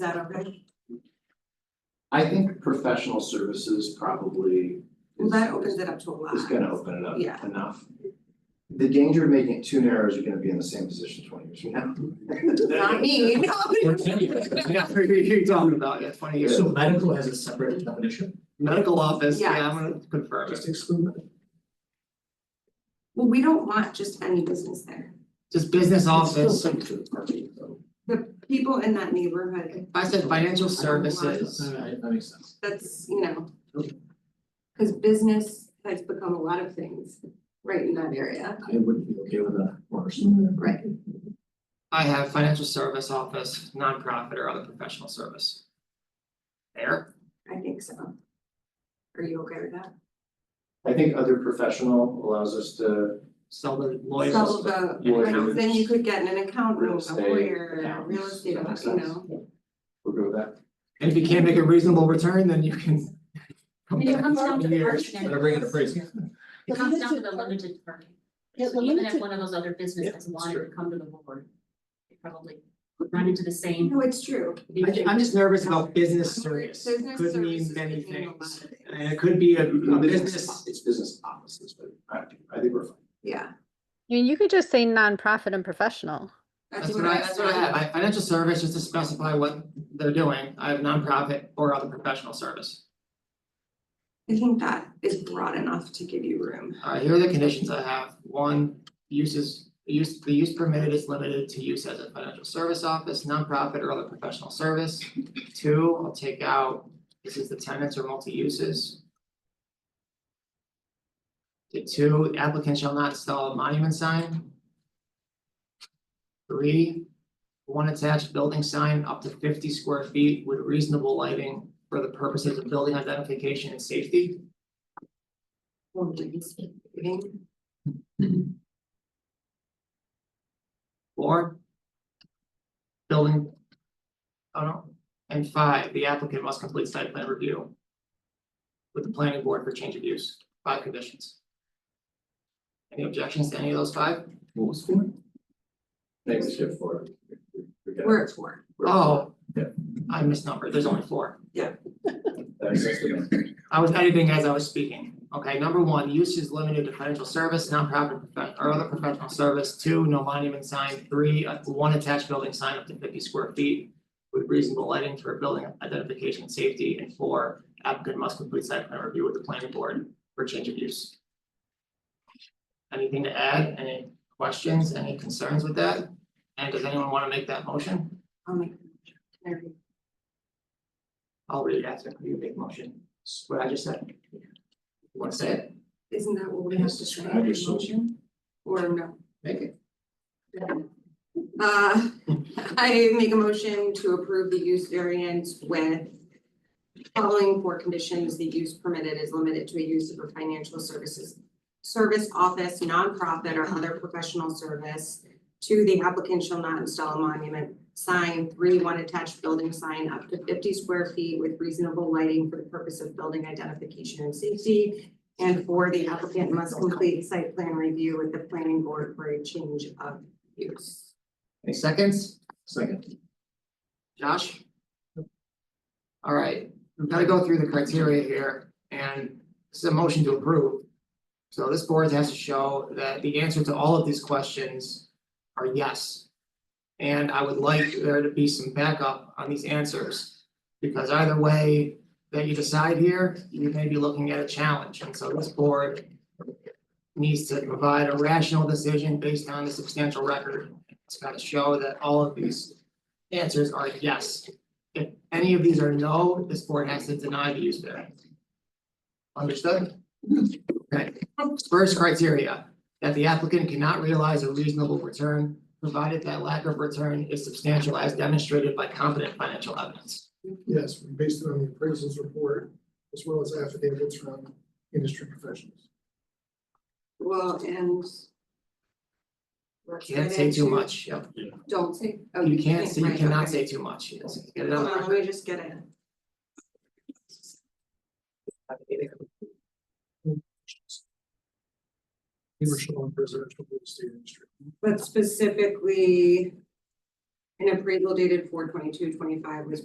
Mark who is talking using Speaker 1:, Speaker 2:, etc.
Speaker 1: that okay?
Speaker 2: I think professional services probably
Speaker 1: Well,
Speaker 2: is
Speaker 1: that opens it up to a lot.
Speaker 2: is gonna open it up
Speaker 1: Yeah.
Speaker 2: enough. The danger of making it too narrow is you're gonna be in the same position twenty years from now.
Speaker 1: Not me, no.
Speaker 3: Yeah, you're talking about, yeah, twenty years,
Speaker 4: So medical has a separate definition,
Speaker 3: medical office, yeah, I'm
Speaker 1: Yes.
Speaker 3: gonna confirm
Speaker 4: just
Speaker 3: it,
Speaker 4: exclude medical.
Speaker 1: Well, we don't want just any business there.
Speaker 3: just business
Speaker 4: It's
Speaker 3: office,
Speaker 4: still subject to parking, though.
Speaker 1: The people in that neighborhood,
Speaker 3: if I said financial
Speaker 4: All
Speaker 3: services,
Speaker 4: right, that makes sense.
Speaker 1: that's, you know. Cause business has become a lot of things right in that area,
Speaker 4: I wouldn't be okay with a person.
Speaker 1: right?
Speaker 3: I have financial service office, nonprofit or other professional service. There,
Speaker 1: I think so. Are you okay with that?
Speaker 2: I think other professional allows us to
Speaker 3: sell the
Speaker 1: So
Speaker 3: lawyers,
Speaker 1: the,
Speaker 2: Yeah.
Speaker 1: like, then you could get an
Speaker 2: real
Speaker 1: accountant, a
Speaker 2: estate,
Speaker 1: lawyer, a
Speaker 2: accountants,
Speaker 1: real estate,
Speaker 2: that makes
Speaker 1: you
Speaker 2: sense.
Speaker 1: know.
Speaker 2: We'll go with that.
Speaker 3: and if you can't make a reasonable return, then you can. come
Speaker 5: It
Speaker 3: back
Speaker 5: comes down to
Speaker 3: in years.
Speaker 5: parking.
Speaker 4: Better bring it a appraisal.
Speaker 5: It comes down to the limited parking.
Speaker 6: Yeah, the
Speaker 5: So even if
Speaker 6: limited-
Speaker 5: one of those other businesses
Speaker 4: Yeah,
Speaker 5: wanted
Speaker 4: sure.
Speaker 5: to come to the board, they probably would run into the same.
Speaker 1: No, it's true.
Speaker 3: I ju- I'm just nervous about business
Speaker 1: Business
Speaker 3: service,
Speaker 1: services
Speaker 3: could mean
Speaker 1: could
Speaker 3: many
Speaker 1: mean a lot of
Speaker 3: things,
Speaker 1: things.
Speaker 3: and it could be a a business,
Speaker 2: It's business offices, but I I think we're fine.
Speaker 1: Yeah,
Speaker 7: I mean, you could just say nonprofit and professional.
Speaker 3: that's what I, that's what I have, I have financial service just to specify what they're doing, I have nonprofit or other professional service.
Speaker 1: I think that is broad enough to give you room.
Speaker 3: Alright, Uh, here are the conditions I have, one, uses, use, the use permitted is limited to use as a financial service office, nonprofit or other professional service. Two, I'll take out, this is the tenants or multi-uses. The two, applicant shall not install a monument sign. Three, one attached building sign up to fifty square feet with reasonable lighting for the purposes of building identification and safety.
Speaker 1: Well, do you see anything?
Speaker 3: Hmm. Four. Building. Oh no, and five, the applicant must complete site plan review. With the planning board for change of use, five conditions. Any objections to any of those five?
Speaker 4: What was for?
Speaker 2: Thanks, Skip, for.
Speaker 1: We're at four.
Speaker 3: Oh.
Speaker 2: Yeah.
Speaker 3: I misnumbered, there's only four.
Speaker 2: That makes sense to me.
Speaker 3: I was editing as I was speaking. Okay, number one, use is limited to financial service, nonprofit profe- or other professional service. Two, no monument sign. Three, uh, one attached building sign up to fifty square feet with reasonable lighting for building identification and safety. And four, applicant must complete site plan review with the planning board for change of use. Anything to add? Any questions? Any concerns with that? And does anyone want to make that motion?
Speaker 1: I'll make the motion. There we go.
Speaker 3: I'll read it after you make motion. It's What I just said. You Want to say it?
Speaker 1: Isn't that what we have to say? in the motion? Or no?
Speaker 3: Make it.
Speaker 1: Uh, I make a motion to approve the use variance with following four conditions, the use permitted is limited to a use of a financial services service office, nonprofit or other professional service. Two, the applicant shall not install a monument sign, three, one attached building sign up to fifty square feet with reasonable lighting for the purpose of building identification and safety. And four, the applicant must complete site plan review with the planning board for a change of use.
Speaker 3: Any seconds?
Speaker 4: Second.
Speaker 3: Josh? All right, we've gotta go through the criteria here, and this is a motion to approve. So this board has to show that the answer to all of these questions are yes. And I would like there to be some backup on these answers, because either way that you decide here, you may be looking at a challenge, and so this board needs to provide a rational decision based on the substantial record. It's gotta show that all of these answers are yes. If any of these are no, this board has to deny the use variance. Understood? Okay, first criteria, that the applicant cannot realize a reasonable return, provided that lack of return is substantial as demonstrated by competent financial evidence.
Speaker 8: Yes, based on the appraisals report, as well as affidavits from industry professionals.
Speaker 1: Well, and. let's
Speaker 3: Can't
Speaker 1: get
Speaker 3: say too
Speaker 1: into-
Speaker 3: much, yep.
Speaker 1: Don't say, oh,
Speaker 3: You can't say, you
Speaker 1: right,
Speaker 3: cannot
Speaker 1: okay.
Speaker 3: say too much, yes, get it on
Speaker 1: Hold
Speaker 3: the
Speaker 1: on, let
Speaker 3: record.
Speaker 1: me just get it.
Speaker 8: They were showing residential real estate industry.
Speaker 1: But specifically. An appraisal dated 422-25 was